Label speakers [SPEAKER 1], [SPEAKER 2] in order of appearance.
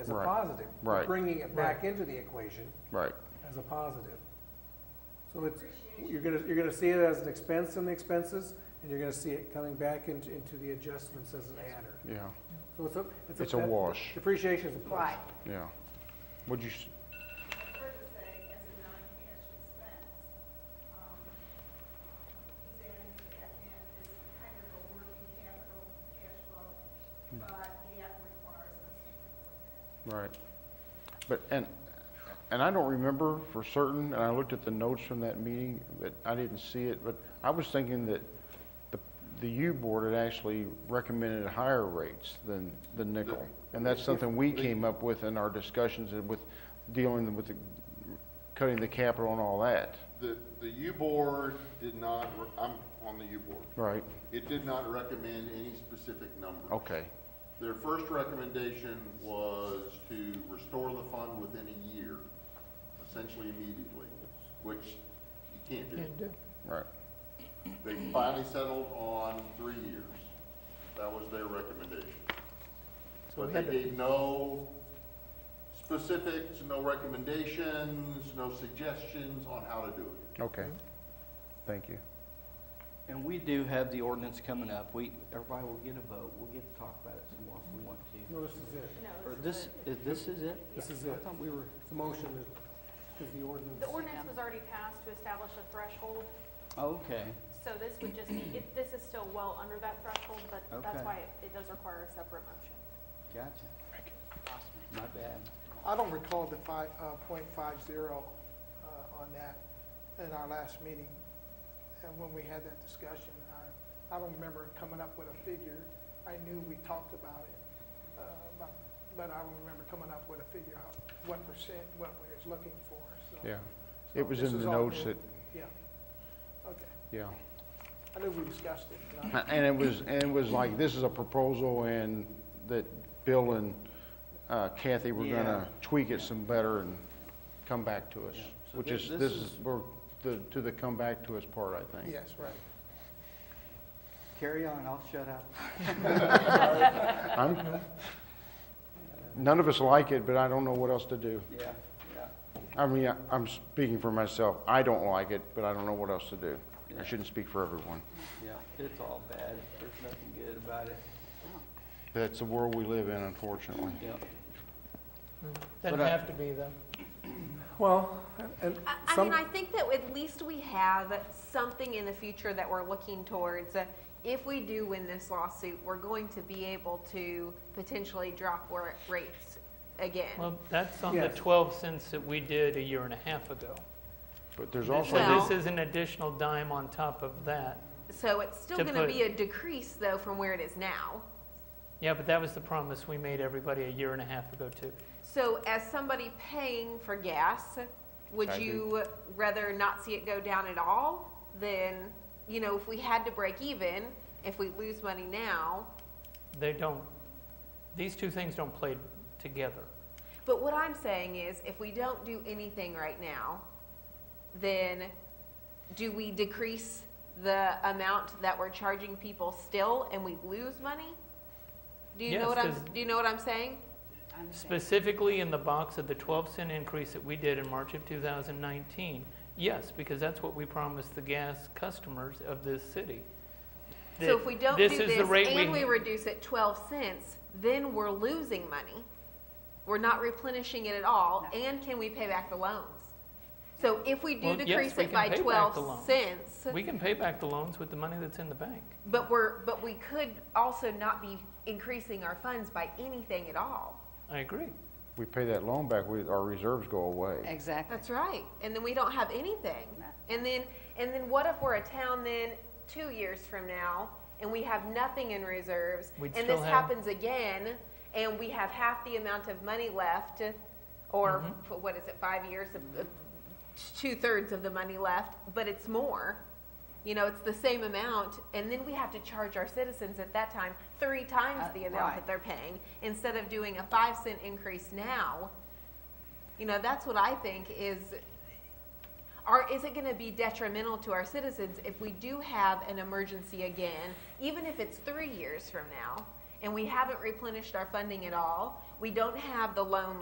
[SPEAKER 1] as a
[SPEAKER 2] Right.
[SPEAKER 1] positive. We're
[SPEAKER 2] Right.
[SPEAKER 1] Bringing it back into the equation
[SPEAKER 2] right,
[SPEAKER 1] as a positive. So it's, you're gonna, you're gonna see it as an expense in the expenses, and you're gonna see it coming back into, into the adjustments as an adder.
[SPEAKER 2] yeah,
[SPEAKER 1] So it's a, it's a.
[SPEAKER 2] It's a wash.
[SPEAKER 1] Depreciation is a wash.
[SPEAKER 3] Right.
[SPEAKER 2] yeah. Would you, s-
[SPEAKER 4] prefer to say as a non-cash expense. Um, He's adding to that and is kind of a working capital cash flow, but the app requires us to report that.
[SPEAKER 2] right. But, and, and I don't remember for certain, and I looked at the notes from that meeting, but I didn't see it, but I was thinking that the, the U board had actually recommended higher rates than the nickel. And that's something we came up with in our discussions and with dealing with the, cutting the capital and all that,
[SPEAKER 5] The, the U-Board did not, re- I'm on the U-Board.
[SPEAKER 2] right?
[SPEAKER 5] It did not recommend any specific number.
[SPEAKER 2] Okay,
[SPEAKER 5] Their first recommendation was to restore the fund within a year, essentially immediately, which you can't do.
[SPEAKER 2] right,
[SPEAKER 5] They finally settled on three years. That was their recommendation.
[SPEAKER 1] So we
[SPEAKER 5] But
[SPEAKER 1] had
[SPEAKER 5] they
[SPEAKER 1] to-
[SPEAKER 5] gave no specifics, no recommendations, no suggestions on how to do it.
[SPEAKER 2] okay. Thank you.
[SPEAKER 6] And we do have the ordinance coming up. We, everybody will get a vote. We'll get to talk about it some more if we want to.
[SPEAKER 1] No, this is it.
[SPEAKER 6] Or this, is- this is it?
[SPEAKER 1] This is
[SPEAKER 6] I
[SPEAKER 1] it.
[SPEAKER 6] thought we were,
[SPEAKER 1] It's a motion, because the ordinance.
[SPEAKER 7] The ordinance was already passed to establish a threshold,
[SPEAKER 6] okay,
[SPEAKER 7] so this would just be, if this is still well under that threshold, but
[SPEAKER 6] Okay.
[SPEAKER 7] that's why it- it does require a separate motion.
[SPEAKER 6] gotcha. My bad.
[SPEAKER 8] I don't recall the five, uh, point five zero, uh, on that in our last meeting. And when we had that discussion, I, I don't remember coming up with a figure. I knew we talked about it, uh, but, but I don't remember coming up with a figure of what percent, what we was looking for, so.
[SPEAKER 2] Yeah, it was
[SPEAKER 8] So this
[SPEAKER 2] in
[SPEAKER 8] is
[SPEAKER 2] the
[SPEAKER 8] all
[SPEAKER 2] notes
[SPEAKER 8] new.
[SPEAKER 2] that,
[SPEAKER 8] Yeah, okay.
[SPEAKER 2] yeah.
[SPEAKER 8] I knew we discussed it. and I-
[SPEAKER 2] And it was, and it was like, this is a proposal and that Bill and uh, Kathy were gonna tweak it some better and come back to us.
[SPEAKER 6] Yeah. So
[SPEAKER 2] Which
[SPEAKER 6] thi-
[SPEAKER 2] is,
[SPEAKER 6] this
[SPEAKER 2] this
[SPEAKER 6] is-
[SPEAKER 2] is, we're, the, to the come back to us part, I think.
[SPEAKER 8] Yes, right.
[SPEAKER 6] Carry on, I'll shut up.
[SPEAKER 2] I'm- None of us like it, but I don't know what else to do.
[SPEAKER 6] Yeah, yeah.
[SPEAKER 2] I mean, I- I'm speaking for myself. I don't like it, but I don't know what else to do. I shouldn't speak for everyone.
[SPEAKER 6] Yeah, it's all bad. There's nothing good about it.
[SPEAKER 2] That's the world we live in, unfortunately.
[SPEAKER 6] Yeah.
[SPEAKER 9] Doesn't
[SPEAKER 6] But I-
[SPEAKER 9] have to be, though.
[SPEAKER 1] Well, and
[SPEAKER 3] I, I
[SPEAKER 1] some.
[SPEAKER 3] mean, I think that at least we have something in the future that we're looking towards. Uh, If we do win this lawsuit, we're going to be able to potentially drop wa- rates again.
[SPEAKER 9] Well, that's on the
[SPEAKER 1] Yes.
[SPEAKER 9] 12 cents that we did a year and a half ago.
[SPEAKER 2] But there's
[SPEAKER 9] So
[SPEAKER 2] also.
[SPEAKER 9] this
[SPEAKER 3] Well-
[SPEAKER 9] is an additional dime on top of that.
[SPEAKER 3] So it's still
[SPEAKER 9] To
[SPEAKER 3] gonna
[SPEAKER 9] put-
[SPEAKER 3] be a decrease though from where it is now.
[SPEAKER 9] Yeah, but that was the promise we made everybody a year and a half ago, too.
[SPEAKER 3] So as somebody paying for gas, would
[SPEAKER 2] I do.
[SPEAKER 3] you rather not see it go down at all than, you know, if we had to break even, if we lose money now?
[SPEAKER 9] They don't, these two things don't play together.
[SPEAKER 3] But what I'm saying is, if we don't do anything right now, then do we decrease the amount that we're charging people still and we lose money? Do you
[SPEAKER 9] Yes,
[SPEAKER 3] know what I'm,
[SPEAKER 9] 'cause-
[SPEAKER 3] do you know what I'm saying?
[SPEAKER 9] Specifically in the box of the 12 cent increase that we did in March of 2019. Yes, because that's what we promised the gas customers of this city.
[SPEAKER 3] So
[SPEAKER 9] That
[SPEAKER 3] if we don't do
[SPEAKER 9] this is the
[SPEAKER 3] this
[SPEAKER 9] rate
[SPEAKER 3] and
[SPEAKER 9] we-
[SPEAKER 3] we reduce it twelve cents, then we're losing money. We're not replenishing it at all, and can we pay back the loans? So if we do
[SPEAKER 9] Well, yes,
[SPEAKER 3] decrease
[SPEAKER 9] we
[SPEAKER 3] it
[SPEAKER 9] can
[SPEAKER 3] by
[SPEAKER 9] pay back the
[SPEAKER 3] twelve
[SPEAKER 9] loans.
[SPEAKER 3] cents,
[SPEAKER 9] We can pay back the loans with the money that's in the bank.
[SPEAKER 3] but we're, but we could also not be increasing our funds by anything at all.
[SPEAKER 9] I agree.
[SPEAKER 2] we pay that loan back, we, our reserves go away.
[SPEAKER 10] Exactly.
[SPEAKER 3] That's right, and then we don't have anything.
[SPEAKER 10] No.
[SPEAKER 3] And then, and then what if we're a town then, two years from now, and we have nothing in reserves?
[SPEAKER 9] We'd
[SPEAKER 3] And
[SPEAKER 9] still
[SPEAKER 3] this
[SPEAKER 9] have-
[SPEAKER 3] happens again, and we have half the amount of money left, or,
[SPEAKER 9] Mm-hmm.
[SPEAKER 3] f- what is it, five years, of- of two-thirds of the money left, but it's more. You know, it's the same amount, and then we have to charge our citizens at that time three times
[SPEAKER 10] Uh,
[SPEAKER 3] the amount that
[SPEAKER 10] right.
[SPEAKER 3] they're paying, instead of doing a five cent increase now. You know, that's what I think is, are, is it gonna be detrimental to our citizens if we do have an emergency again, even if it's three years from now? and we haven't replenished our funding at all. We don't have the loan